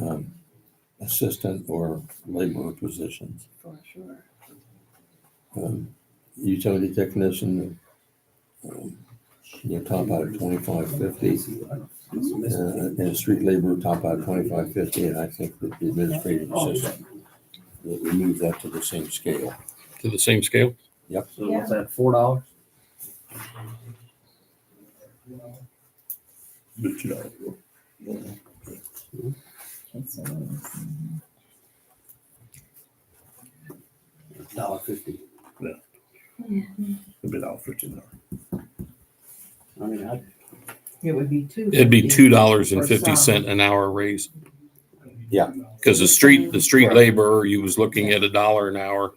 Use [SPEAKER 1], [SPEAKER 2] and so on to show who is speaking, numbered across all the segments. [SPEAKER 1] um, assistant or laborer positions.
[SPEAKER 2] for sure.
[SPEAKER 1] Um, Utility technician, um, you know, top out at twenty-five fifty. uh, And, and street labor top out twenty-five fifty, and I think that the administrative assistant, that we move that to the same scale.
[SPEAKER 3] to the same scale?
[SPEAKER 4] So what's that, four dollars?
[SPEAKER 1] But you know,
[SPEAKER 4] Dollar fifty.
[SPEAKER 1] a bit out for tonight.
[SPEAKER 4] I mean, I,
[SPEAKER 2] It would be two.
[SPEAKER 3] It'd be two dollars and
[SPEAKER 2] For some.
[SPEAKER 3] fifty cent an hour raise.
[SPEAKER 1] Yeah.
[SPEAKER 3] Because the street, the street
[SPEAKER 1] Right.
[SPEAKER 3] laborer, you was looking at a dollar an hour.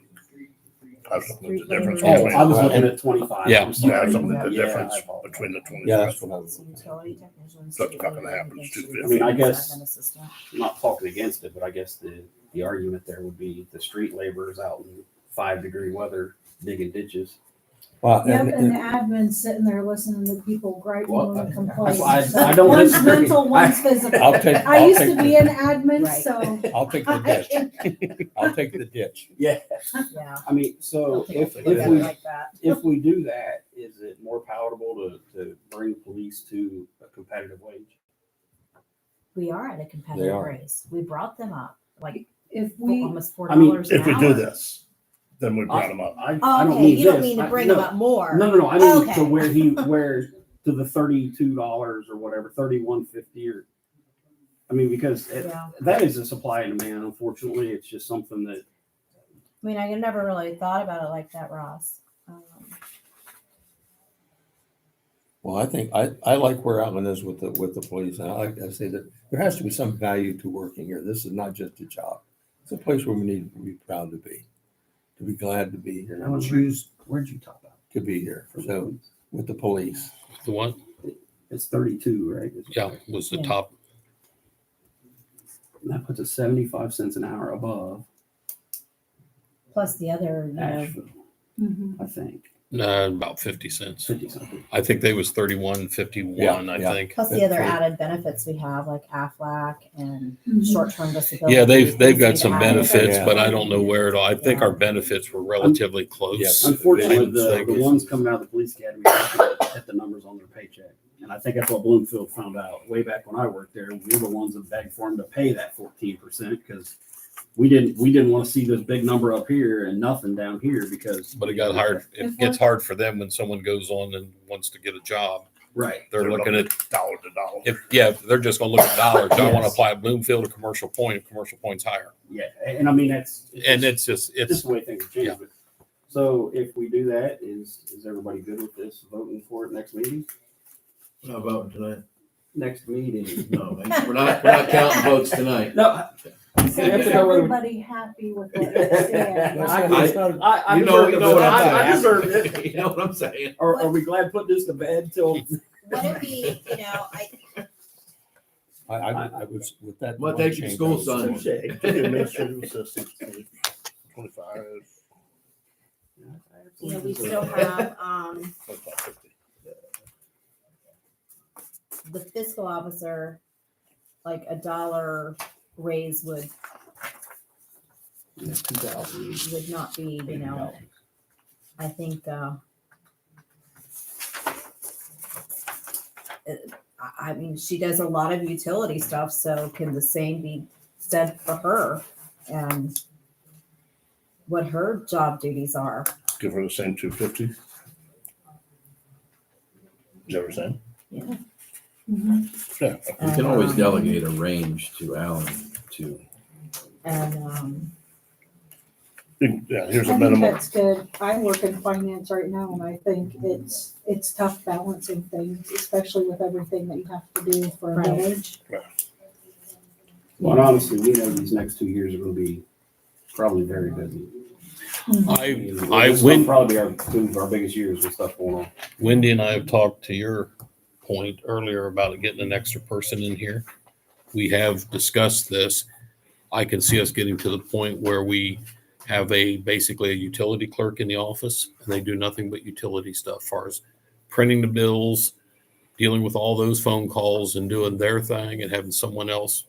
[SPEAKER 5] I've looked at the difference
[SPEAKER 4] oh, I was
[SPEAKER 5] between,
[SPEAKER 4] looking at twenty-five. I'm
[SPEAKER 3] Yeah. Yeah,
[SPEAKER 5] yeah,
[SPEAKER 4] sorry.
[SPEAKER 5] I've looked at the
[SPEAKER 4] Yeah, I
[SPEAKER 5] difference
[SPEAKER 4] apologize.
[SPEAKER 5] between the twenty.
[SPEAKER 1] Yeah, that's what I was.
[SPEAKER 2] Utility technicians.
[SPEAKER 5] That's not gonna happen, it's
[SPEAKER 4] I mean, I
[SPEAKER 5] 250.
[SPEAKER 4] guess, I'm not talking against it, but I guess the, the argument there would be the street laborers out in five degree weather digging ditches.
[SPEAKER 1] Well,
[SPEAKER 6] Yep,
[SPEAKER 1] and-
[SPEAKER 6] and the
[SPEAKER 1] and-
[SPEAKER 6] admin's sitting there listening to people griping
[SPEAKER 4] Well,
[SPEAKER 6] and
[SPEAKER 4] That's
[SPEAKER 6] complaining.
[SPEAKER 4] why I, I don't
[SPEAKER 6] One's
[SPEAKER 4] disagree.
[SPEAKER 6] mental, one's
[SPEAKER 4] I-
[SPEAKER 6] physical.
[SPEAKER 1] I'll take,
[SPEAKER 6] I
[SPEAKER 1] I'll
[SPEAKER 6] used to be
[SPEAKER 1] take,
[SPEAKER 6] an admin,
[SPEAKER 2] Right.
[SPEAKER 7] Oh.
[SPEAKER 6] so.
[SPEAKER 1] the- I'll take the ditch. I'll take the ditch.
[SPEAKER 4] Yeah,
[SPEAKER 6] Yeah.
[SPEAKER 4] I mean, so if,
[SPEAKER 6] Look
[SPEAKER 4] if
[SPEAKER 6] at it
[SPEAKER 4] we,
[SPEAKER 6] like that.
[SPEAKER 4] if we do that, is it more palatable to, to bring police to a competitive wage?
[SPEAKER 7] We are at a
[SPEAKER 1] They
[SPEAKER 7] competitive
[SPEAKER 1] are.
[SPEAKER 7] race. We brought them up like
[SPEAKER 6] If
[SPEAKER 7] fo-
[SPEAKER 6] we,
[SPEAKER 7] almost four
[SPEAKER 4] I mean,
[SPEAKER 7] dollars an
[SPEAKER 5] If we
[SPEAKER 7] hour. Oh,
[SPEAKER 5] do this, then we brought them up.
[SPEAKER 4] I, I don't
[SPEAKER 7] Okay,
[SPEAKER 4] mean
[SPEAKER 7] you don't
[SPEAKER 4] this.
[SPEAKER 7] mean to
[SPEAKER 4] I-
[SPEAKER 7] bring
[SPEAKER 4] no.
[SPEAKER 7] them up more.
[SPEAKER 4] No, no, no. I mean
[SPEAKER 7] Okay.
[SPEAKER 4] to where he where to the thirty-two dollars or whatever, thirty-one fifty or. I mean, because it,
[SPEAKER 7] Yeah.
[SPEAKER 4] that is a supply and demand. Unfortunately, it's just something that
[SPEAKER 7] I mean, I never really thought about it like that, Ross. Um,
[SPEAKER 1] Well, I think, I, I like where Alan is with the, with the police, and I like, I say that there has to be some value to working here. This is not just a job. It's a place where we need to be proud to be, to be glad to be here, and choose
[SPEAKER 4] where'd you talk about?
[SPEAKER 1] to be here. So with the police,
[SPEAKER 3] The one,
[SPEAKER 4] It's thirty-two, right? It's-
[SPEAKER 3] yeah, was the
[SPEAKER 7] Yeah.
[SPEAKER 3] top.
[SPEAKER 4] And that puts us seventy-five cents an hour above
[SPEAKER 7] plus the other, you know,
[SPEAKER 4] Asheville,
[SPEAKER 6] Mhm.
[SPEAKER 4] I think.
[SPEAKER 3] Uh, about fifty cents.
[SPEAKER 4] Fifty something.
[SPEAKER 3] I think they was thirty-one fifty-one,
[SPEAKER 1] Yeah,
[SPEAKER 3] I
[SPEAKER 1] yeah.
[SPEAKER 3] think.
[SPEAKER 7] plus the other
[SPEAKER 1] Right.
[SPEAKER 7] added benefits we have like AFLAC and
[SPEAKER 6] Mhm.
[SPEAKER 7] short-term disability.
[SPEAKER 3] Yeah, they've, they've
[SPEAKER 7] things
[SPEAKER 3] got
[SPEAKER 7] we've
[SPEAKER 3] some
[SPEAKER 7] added.
[SPEAKER 3] benefits,
[SPEAKER 1] Yeah.
[SPEAKER 3] but I don't know where it all. I think our benefits were relatively close.
[SPEAKER 1] Yes.
[SPEAKER 4] Unfortunately, the,
[SPEAKER 3] Thank
[SPEAKER 4] the
[SPEAKER 3] you.
[SPEAKER 4] ones coming out of the police academy at the numbers on their paycheck. And I think that's what Bloomfield found out way back when I worked there. We were the ones that begged for them to pay that fourteen percent because we didn't, we didn't want to see this big number up here and nothing down here because.
[SPEAKER 3] But it got hard, it gets hard for them when someone goes on and wants to get a job.
[SPEAKER 4] Right.
[SPEAKER 3] They're looking at
[SPEAKER 5] Dollar to dollar.
[SPEAKER 3] If, yeah, if they're just gonna look at dollars. I want to
[SPEAKER 4] Yes.
[SPEAKER 3] apply at Bloomfield or Commercial Point, if Commercial Point's higher.
[SPEAKER 4] Yeah. And I mean, that's.
[SPEAKER 3] And it's just,
[SPEAKER 4] Just
[SPEAKER 3] it's,
[SPEAKER 4] the way things have changed. So if we do that, is, is everybody good with this voting for it next meeting?
[SPEAKER 8] We're not voting tonight.
[SPEAKER 4] Next meeting.
[SPEAKER 8] No, man. we're not, we're not counting votes tonight.
[SPEAKER 4] No,
[SPEAKER 6] So
[SPEAKER 4] Yeah,
[SPEAKER 6] is
[SPEAKER 4] that's how I would-
[SPEAKER 6] mm-hmm. everybody happy with what they're saying?
[SPEAKER 4] I-
[SPEAKER 1] It's not-
[SPEAKER 4] I, I
[SPEAKER 8] You know,
[SPEAKER 4] deserve
[SPEAKER 8] you
[SPEAKER 4] the
[SPEAKER 8] know what
[SPEAKER 4] vote.
[SPEAKER 8] I'm
[SPEAKER 4] I-
[SPEAKER 8] saying.
[SPEAKER 4] I deserve it.
[SPEAKER 8] You know what I'm saying?
[SPEAKER 4] Are, are we glad putting this to bed till?
[SPEAKER 7] What if we, you know, I,
[SPEAKER 1] I, I, I was with that.
[SPEAKER 8] Well,
[SPEAKER 1] one
[SPEAKER 8] thank you,
[SPEAKER 1] change,
[SPEAKER 8] school
[SPEAKER 1] I was-
[SPEAKER 8] son.
[SPEAKER 5] To the Administrative assistant, twenty-five,
[SPEAKER 7] you know, we still have, um,
[SPEAKER 5] twenty-five fifty.
[SPEAKER 7] the fiscal officer, like a dollar raise would, would not be, you know, I think, uh, it- I, I mean, she does a lot of utility stuff, so can the same be said for her? And what her job duties are?
[SPEAKER 5] Give her the same two fifty. Is that what you're saying?
[SPEAKER 6] Mhm.
[SPEAKER 5] Yeah.
[SPEAKER 4] Uh,
[SPEAKER 8] You can always
[SPEAKER 7] Um,
[SPEAKER 8] delegate a range to Alan to.
[SPEAKER 7] And, um,
[SPEAKER 5] Yeah, here's
[SPEAKER 6] I
[SPEAKER 5] a
[SPEAKER 6] think
[SPEAKER 5] minimum.
[SPEAKER 6] that's good. I work in finance right now and I think it's, it's tough balancing things, especially with everything that you have to do for a
[SPEAKER 7] Right.
[SPEAKER 6] village.
[SPEAKER 4] Well, and honestly, we know these next two years are gonna be probably very busy.
[SPEAKER 3] I,
[SPEAKER 4] mean,
[SPEAKER 3] I
[SPEAKER 4] this will
[SPEAKER 3] went,
[SPEAKER 4] Probably be our, two of our biggest years with stuff going on.
[SPEAKER 3] Wendy and I have talked to your point earlier about getting an extra person in here. We have discussed this. I can see us getting to the point where we have a, basically a utility clerk in the office and they do nothing but utility stuff, far as printing the bills, dealing with all those phone calls and doing their thing and having someone else